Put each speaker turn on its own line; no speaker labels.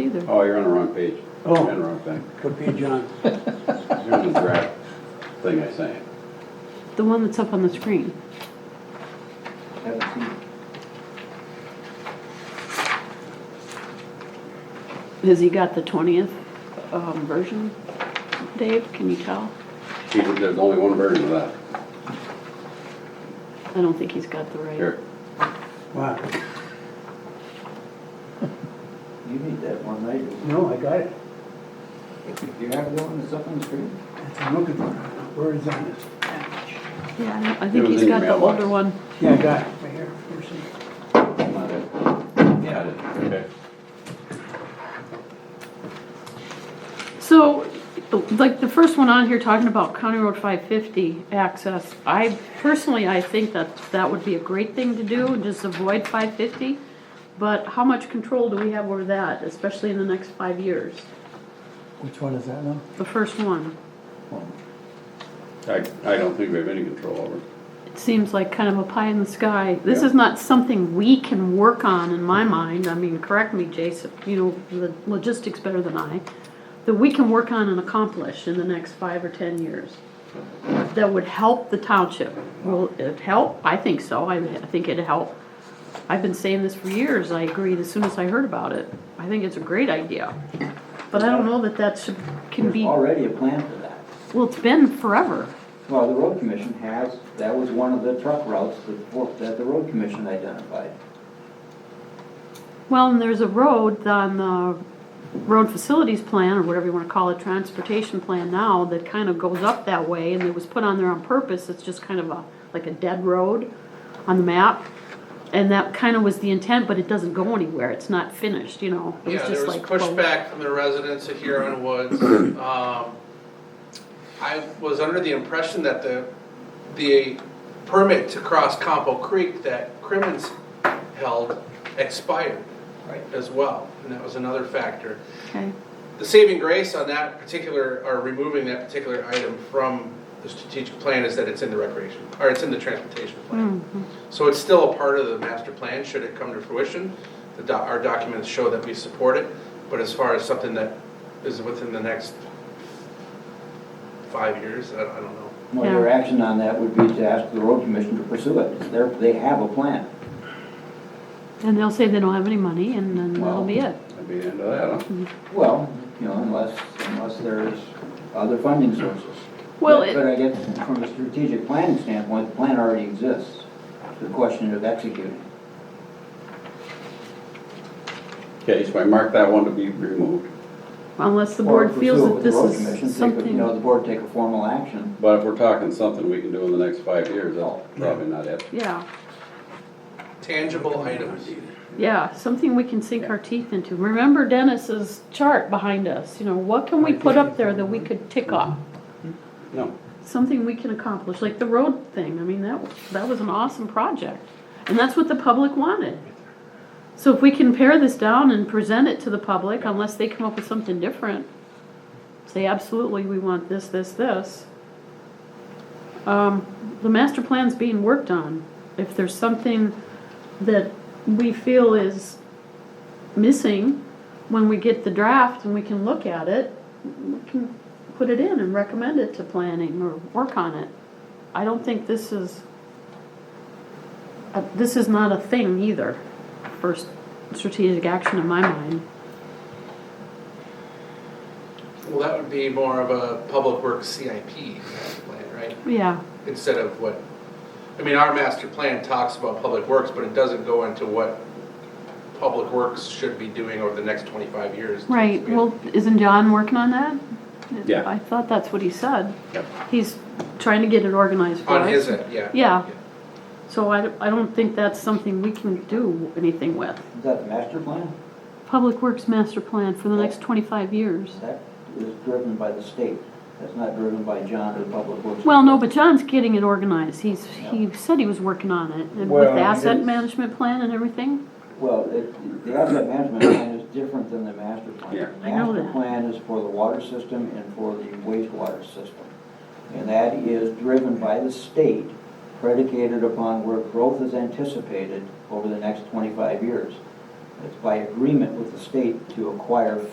either.
Oh, you're on the wrong page.
Oh.
You're on the wrong thing.
What page on?
You're on the draft thing I sent you.
The one that's up on the screen.
Haven't seen it.
Has he got the twentieth, um, version? Dave, can you tell?
He did- There's only one version of that.
I don't think he's got the right.
Here,
Wow,
You need that one, I do.
no, I got it.
Do you have the one that's up on the screen?
That's what I'm looking for. Where is on this package?
Yeah, I don't- I
It
think
was
he's
in your
got the older
mailbox.
one.
Yeah, I got it, right here. Here's it.
Not it.
yeah, I did. Okay.
So, like, the first one on here talking about County Road 550 access, I personally, I think that that would be a great thing to do, just avoid 550. But how much control do we have over that, especially in the next five years?
Which one is that now?
The first one,
I, I don't think we have any control over it.
it seems like kind of a pie in the sky. This is not something we can work on in my mind, I mean, correct me, Jason, you know, the logistics better than I, that we can work on and accomplish in the next five or 10 years. that would help the township. Will it help? I think so. I, I think it'd help. I've been saying this for years. I agreed as soon as I heard about it. I think it's a great idea. But I don't know that that should, can
There's
be, well,
already a plan for that.
it's been forever.
Well, the road commission has, that was one of the truck routes that, wo- that the road commission identified.
Well, and there's a road on the road facilities plan, or whatever you wanna call it, transportation plan now, that kind of goes up that way, and it was put on there on purpose, it's just kind of a, like a dead road on the map. And that kind of was the intent, but it doesn't go anywhere, it's not finished, you know? It
Yeah, there
just
was
like, well,
pushback from the residents at Huron Woods. Um, I was under the impression that the, the permit to cross Campo Creek that Crimmins held expired
Right.
as well, and that was another factor.
Okay,
The saving grace on that particular, or removing that particular item from the strategic plan is that it's in the recreation, or it's in the transportation plan.
Mm-hmm.
So it's still a part of the master plan, should it come to fruition. The doc, our documents show that we support it, but as far as something that is within the next five years, I, I don't know.
Well, your action on that would be to ask the road commission to pursue it. They're, they have a plan.
and they'll say they don't have any money, and then that'll
Well,
be it.
That'd be the end of that, huh?
Well, you know, unless, unless there's other funding sources.
Well,
But-
it-
But I guess from a strategic planning standpoint, the plan already exists. The question of executing.
Okay, so I marked that one to be removed.
Unless the
Or
board
pursue
feels
it
that
with the
this
road commission,
is
take a- You know, the
something,
board take a formal action.
But if we're talking something we can do in the next five years, that's probably not it.
yeah,
Tangible items.
yeah, something we can sink our teeth into. Remember Dennis's chart behind us, you know, what can we put up there that we could tick off?
No.
something we can accomplish, like the road thing, I mean, that, that was an awesome project. And that's what the public wanted. So if we can pare this down and present it to the public, unless they come up with something different, say absolutely, we want this, this, this. Um, the master plan's being worked on. If there's something that we feel is missing, when we get the draft and we can look at it, we can put it in and recommend it to planning or work on it. I don't think this is, uh, this is not a thing either, first strategic action in my mind.
Well, that would be more of a public works CIP master plan, right?
Yeah,
instead of what, I mean, our master plan talks about public works, but it doesn't go into what public works should be doing over the next twenty-five years.
right, well, isn't John working on that?
Yeah.
I thought that's what he said.
Yep.
He's trying to get it organized for us.
On his end, yeah.
Yeah. So I, I don't think that's something we can do anything with.
Is that the master plan?
Public Works Master Plan for the next twenty-five years.
That is driven by the state. That's not driven by John or Public Works.
Well, no, but John's getting it organized. He's, he said he was working on it, and with
Well,
the
he
asset
is.
management plan and everything.
Well, it- the asset management plan is different than the master
Yeah.
plan.
I know that.
Master plan is for the water system and for the wastewater system. And that is driven by the state, predicated upon where growth is anticipated over the next twenty-five years. It's by agreement with the state to acquire